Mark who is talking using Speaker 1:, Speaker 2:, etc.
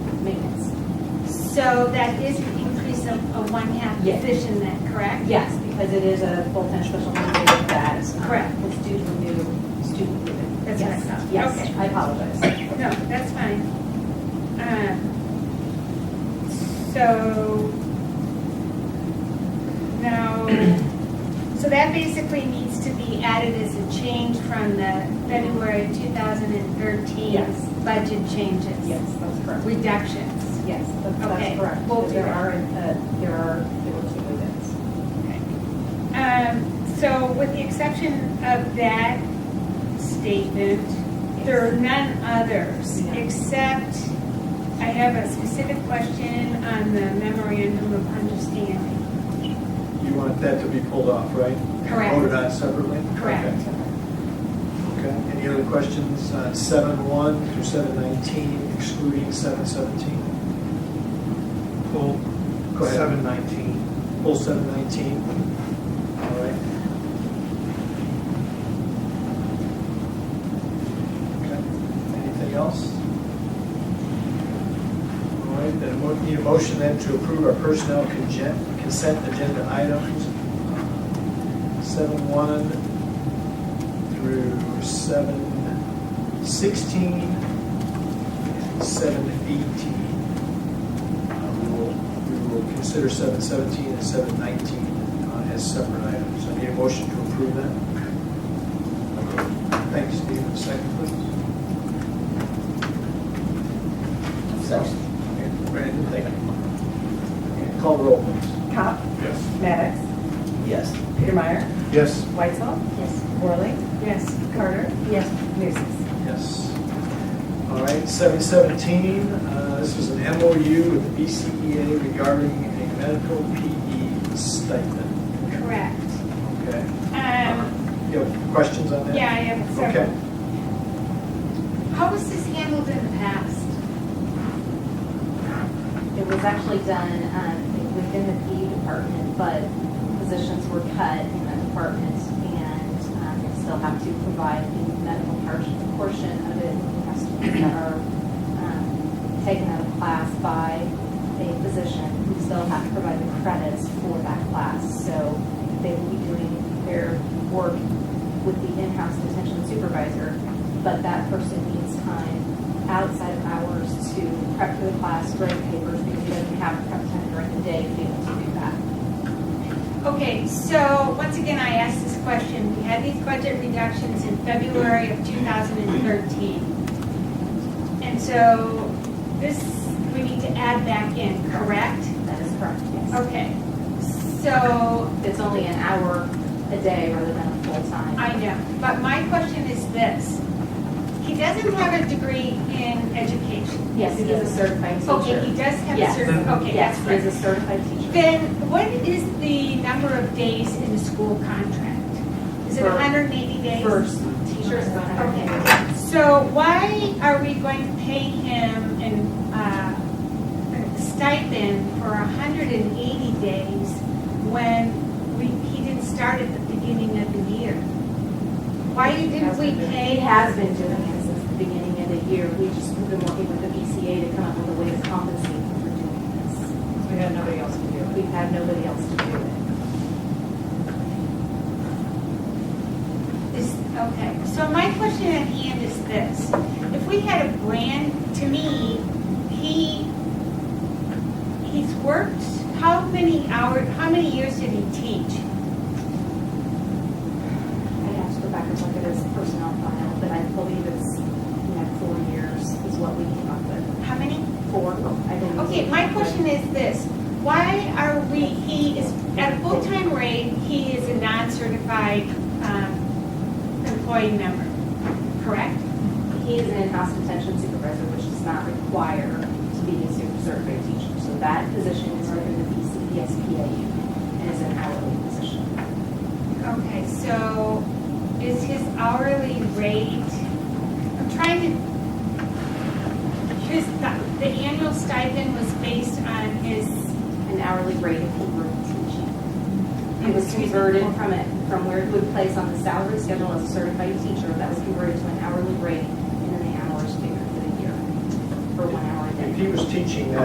Speaker 1: maintenance.
Speaker 2: So that is an increase of a one-half
Speaker 1: Yes.
Speaker 2: position then, correct?
Speaker 1: Yes, because it is a full-time special educator that is
Speaker 2: Correct.
Speaker 1: It's due to the new student movement.
Speaker 2: That's what I thought. Okay.
Speaker 1: Yes, I apologize.
Speaker 2: No, that's fine. Um, So, now, so that basically needs to be added as a change from the February 2013
Speaker 1: Yes.
Speaker 2: budget changes.
Speaker 1: Yes, that's correct.
Speaker 2: Reductions.
Speaker 1: Yes, that's
Speaker 2: Okay,
Speaker 1: that's correct.
Speaker 2: we'll do
Speaker 1: There
Speaker 2: that.
Speaker 1: are, uh, there are, there were two movements.
Speaker 2: Um, So with the exception of that statement, there are none others,
Speaker 1: No.
Speaker 2: except I have a specific question on the memorandum of understanding.
Speaker 3: You want that to be pulled off, right?
Speaker 2: Correct.
Speaker 3: Voted on separately?
Speaker 2: Correct.
Speaker 3: Okay. Okay. Any other questions on seven one through seven nineteen, excluding seven seventeen?
Speaker 4: Pull
Speaker 3: Go ahead.
Speaker 4: seven nineteen.
Speaker 3: Pull seven nineteen. All right. Okay. Anything else? All right, then we'll need a motion then to approve our personnel consent, consent agenda items, seven one through seven sixteen, seven eighteen. Uh, We will, we will consider seven seventeen and seven nineteen uh, as separate items. I need a motion to approve that. Thank you, Steve. Second, please. Second. Brandon, thank you. Call the roll, please.
Speaker 5: Cop.
Speaker 4: Yes.
Speaker 5: Maddox.
Speaker 3: Yes.
Speaker 5: Peter Meyer.
Speaker 4: Yes.
Speaker 5: Whitesell.
Speaker 1: Yes.
Speaker 5: Worley.
Speaker 2: Yes.
Speaker 5: Carter.
Speaker 1: Yes.
Speaker 5: Nucis.
Speaker 3: Yes. All right, seven seventeen, uh, this is an MOU with the BCEA regarding a medical PE stipend.
Speaker 2: Correct.
Speaker 3: Okay.
Speaker 2: Um,
Speaker 3: You have questions on that?
Speaker 2: Yeah, I have
Speaker 3: Uh, Okay.
Speaker 2: several. How was this handled in the past?
Speaker 1: It was actually done um, within the PE department, but positions were cut in that department, and um, they still have to provide the medical par- portion of it, for students that are um, taken out of class by a physician, who still have to provide the credits for that class, so they will be doing their work with the in-house detention supervisor, but that person needs time outside of hours to prep for the class, grade papers, because they doesn't have prep time during the day to be able to do that.
Speaker 2: Okay, so once again, I asked this question. We had these budget reductions in February of 2013. And so this, we need to add back in, correct?
Speaker 1: That is correct, yes.
Speaker 2: Okay, so
Speaker 1: It's only an hour a day rather than a full time.
Speaker 2: I know, but my question is this. He doesn't have a degree in education.
Speaker 1: Yes, he is a certified
Speaker 2: Okay,
Speaker 1: teacher.
Speaker 2: he does have a
Speaker 1: Yes.
Speaker 2: cert, okay, that's
Speaker 1: Yes, he
Speaker 2: right.
Speaker 1: is a certified teacher.
Speaker 2: Then what is the number of days in the school contract? Is it
Speaker 1: For-
Speaker 2: 180 days?
Speaker 1: First, teachers is hundred and eighty.
Speaker 2: Okay, so why are we going to pay him an, uh, a stipend for hundred and eighty days when we, he didn't start at the beginning of the year? Why didn't we
Speaker 1: He
Speaker 2: pay?
Speaker 1: has been doing it since the beginning of the year. We've just been working with the BCA to come up with a way to compensate him for doing
Speaker 5: We had nobody else to do
Speaker 1: this.
Speaker 5: it.
Speaker 1: We've had nobody else to do it.
Speaker 2: Is, okay, so my question at hand is this. If we had a brand, to me, he, he's worked, how many hours, how many years did he teach?
Speaker 1: I'd have to go back and look at his personnel file, but I believe it's, you know, four years is what we came up with.
Speaker 2: How many?
Speaker 1: Four, I believe.
Speaker 2: Okay, my question is this, why are we, he is, at a full-time rate, he is a non-certified um, employee member, correct?
Speaker 1: He is an in-house detention supervisor, which does not require to be a super certified teacher. So that position is within the BCSPA and is an hourly position.
Speaker 2: Okay, so is his hourly rate, I'm trying to, his, the annual stipend was based on his,
Speaker 1: An hourly rate if he were teaching. It was
Speaker 2: Excuse me.
Speaker 1: converted from it, from where it would place on the salary schedule as a certified teacher, that was converted to an hourly rate and then the hours figured for the year. for one hour a day.
Speaker 3: If he was teaching that